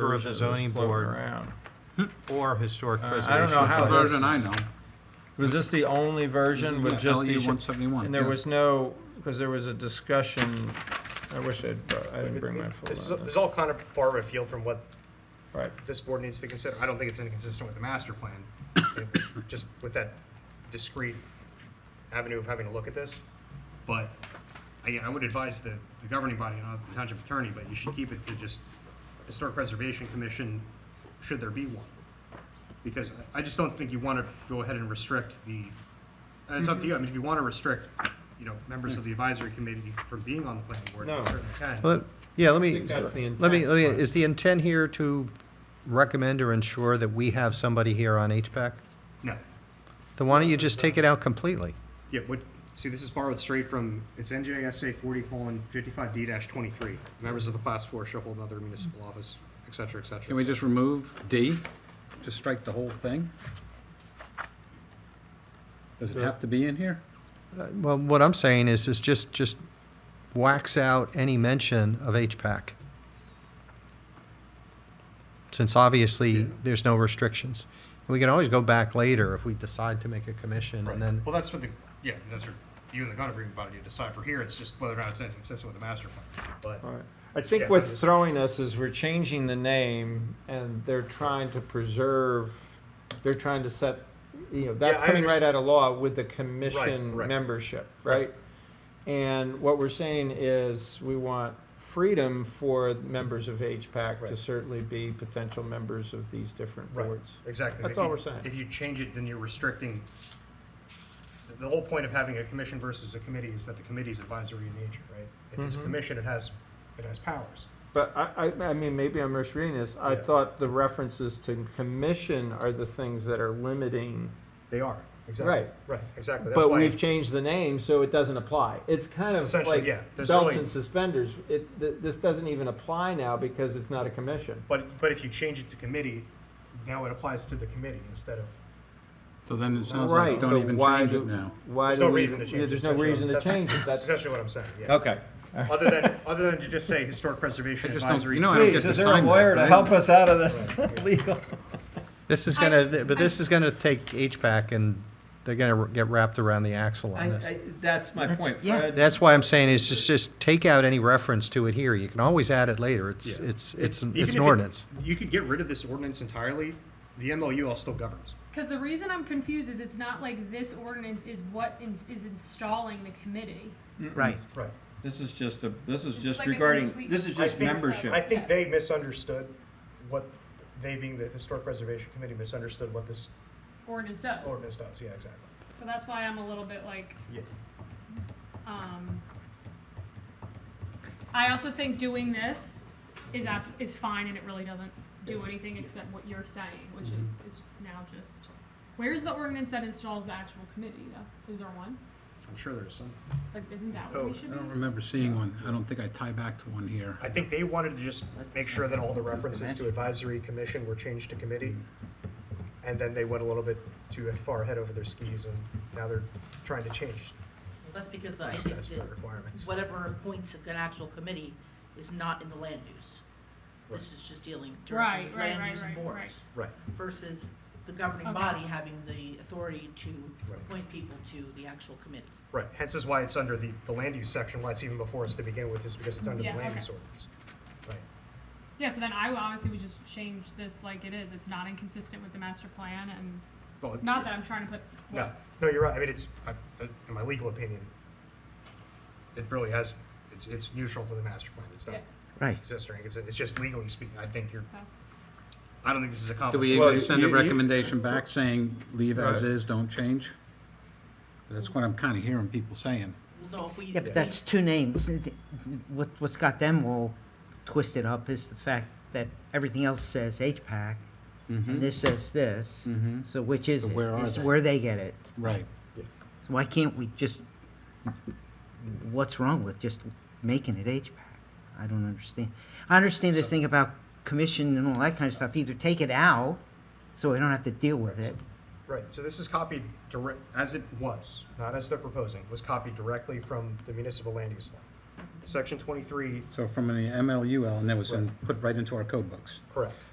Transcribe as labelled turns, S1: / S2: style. S1: member of the
S2: version
S1: zoning
S2: that's floating
S1: board
S2: around.
S1: or historic
S2: Uh,
S1: preservation.
S2: I don't know how.
S3: The version I know.
S2: Was this the only version with just
S3: LE
S2: the?
S3: one seventy-one.
S2: And there was no, because there was a discussion, I wish I'd, brought- I didn't bring my
S4: This
S2: folder.
S4: is, this
S2: on
S4: is
S2: this.
S4: all kind of far afield from what
S2: Right,
S4: this board needs to consider. I don't think it's inconsistent with the master plan. if- Just with that discrete avenue of having to look at this. But I, I would advise the, the governing body, not the township attorney, but you should keep it to just Historic Preservation Commission, should there be one. Because I I just don't think you want to go ahead and restrict the, and it's up to you. I mean, if you want to restrict, you know, members of the advisory committee from being on the planning board,
S2: No.
S4: you certainly can.
S5: Well, Yeah, let me,
S2: think that's the
S5: let me,
S2: intent,
S5: let me,
S2: but-
S5: is the intent here to recommend or ensure that we have somebody here on HPAC?
S4: No.
S5: Then why don't you just take it out completely?
S4: Yeah, what, see, this is borrowed straight from, it's NJSA forty colon fifty-five D dash twenty-three. Members of the class four shall hold another municipal office, et cetera, et
S3: Can
S4: cetera.
S3: we just remove D? Just strike the whole thing? Does it have to be in here?
S5: Uh, Well, what I'm saying is, is just, just wax out any mention of HPAC. Since obviously, there's no restrictions. We can always go back later if we decide to make a commission and then,
S4: Well, that's what the, yeah, that's what you and the gun agreement body decide for here. It's just whether or not it's consistent with the master plan, but.
S2: all right. I think what's throwing us is we're changing the name and they're trying to preserve, they're trying to set, you know, that's
S4: Yeah, I
S2: coming right
S4: understand.
S2: out of law with the commission
S4: right.
S2: membership, right? And what we're saying is we want freedom for members of HPAC to
S4: Right.
S2: certainly be potential members of these different
S4: Right.
S2: boards.
S4: Exactly.
S2: That's
S4: If you-
S2: all we're saying.
S4: If you change it, then you're restricting, the- the whole point of having a commission versus a committee is that the committee's advisory in nature, right? If it's a
S2: Mhm.
S4: commission, it has, it has powers.
S2: But I, I, I mean, maybe I'm misreading this. I
S4: Yeah.
S2: thought the references to commission are the things that are limiting.
S4: They are, exactly.
S2: Right.
S4: Right, exactly. That's
S2: But
S4: why-
S2: we've changed the name, so it doesn't apply. It's kind of
S4: Essentially,
S2: like
S4: yeah. There's
S2: belts
S4: really-
S2: and suspenders. It, th- this doesn't even apply now because it's not a commission.
S4: But, but if you change it to committee, now it applies to the committee instead of,
S3: So then it sounds
S2: Right,
S3: like don't
S2: but
S3: even
S2: why
S3: change
S2: do,
S3: it now.
S2: why
S4: there's
S2: do
S4: no
S2: we,
S4: reason to change
S2: yeah,
S4: it.
S2: there's no
S4: essentially.
S2: reason to
S4: That's-
S2: change it.
S4: That's
S2: That's,
S4: essentially what I'm saying, yeah.
S2: okay.
S4: Other than, other than to just say historic preservation
S3: I just don't-
S4: advisory.
S3: you know, I don't get to sign that, right?
S2: us out of this legal?
S5: this is gonna, but this is gonna take HPAC and they're gonna get wrapped around the axle on this.
S2: that's my point, Fred.
S5: That's why I'm saying is just, just take out any reference to it here. You can always add it later. It's,
S4: Yeah.
S5: it's, it's,
S4: Even
S5: it's
S4: if
S5: an
S4: it-
S5: ordinance.
S4: You could get rid of this ordinance entirely, the MLU all still governs.
S6: Because the reason I'm confused is it's not like this ordinance is what is, is installing the committee.
S7: Right.
S4: Right.
S2: This is just a, this is
S6: It's just like a regarding- complete- this is
S4: just
S6: membership.
S4: uh, I think they misunderstood what, they being the Historic Preservation Committee misunderstood what this
S6: Ordinance does.
S4: ordinance does, yeah, exactly.
S6: So that's why I'm a little bit like,
S4: Yeah.
S6: um, I also think doing this is app, is fine and it really doesn't do
S4: It's-
S6: anything except what you're saying, which is, is now just, where's the ordinance that installs the actual committee though? Is there one?
S4: I'm sure there's some.
S6: Like, isn't that what
S4: Oh,
S6: we
S3: I
S6: should be?
S3: don't remember seeing one. I don't think I tie back to one here.
S4: I think they wanted to just make sure that all the references to advisory commission were changed to committee. And then they went a little bit too far ahead over their skis and now they're trying to change
S7: That's because the, I think
S4: statutory
S7: that
S4: requirements.
S7: whatever appoints an actual committee is not in the land use. This is just dealing directly
S6: Right,
S7: with
S6: right,
S7: land
S6: right,
S7: use and
S6: right,
S7: boards.
S4: Right,
S7: Versus the governing
S6: Okay.
S7: body having the authority to
S4: Right.
S7: appoint people to the actual committee.
S4: right. Hence is why it's under the, the land use section, why it's even before us to begin with, is because it's under the
S6: Yeah,
S4: land
S6: okay.
S4: use ordinance. Right.
S6: Yeah, so then I honestly would just change this like it is. It's not inconsistent with the master plan and
S4: Well, it-
S6: Not that I'm trying to put.
S4: No, no, you're right. I mean, it's, I- I- in my legal opinion, it really has, it's, it's neutral to the master plan. It's not
S6: Yeah.
S7: Right.
S4: existing. It's, it's just legally speaking, I think you're,
S6: So,
S4: I don't think this is
S3: Do
S4: accomplished.
S3: we
S2: Well,
S3: even send a
S2: you- you-
S3: recommendation back saying leave as
S2: Right.
S3: is, don't change? That's what I'm kind of hearing people saying.
S7: Well, no, if we.
S8: Yeah, but that's two names. What, what's got them all twisted up is the fact that everything else says HPAC, and this says this.
S3: Mhm.
S8: So which is
S3: Mm-hmm. So
S8: it?
S3: where are
S8: This is
S3: they?
S8: where they get it.
S3: Right.
S8: So why can't we just, what's wrong with just making it HPAC? I don't understand. I understand this thing about commission and all that kind of stuff. Either take it out, so we don't have to deal with it.
S4: Right, so this is copied direct, as it was, not as they're proposing, was copied directly from the municipal land use law. section twenty-three,
S3: So from the MLUL, and that was in- put right into our code books.
S4: correct.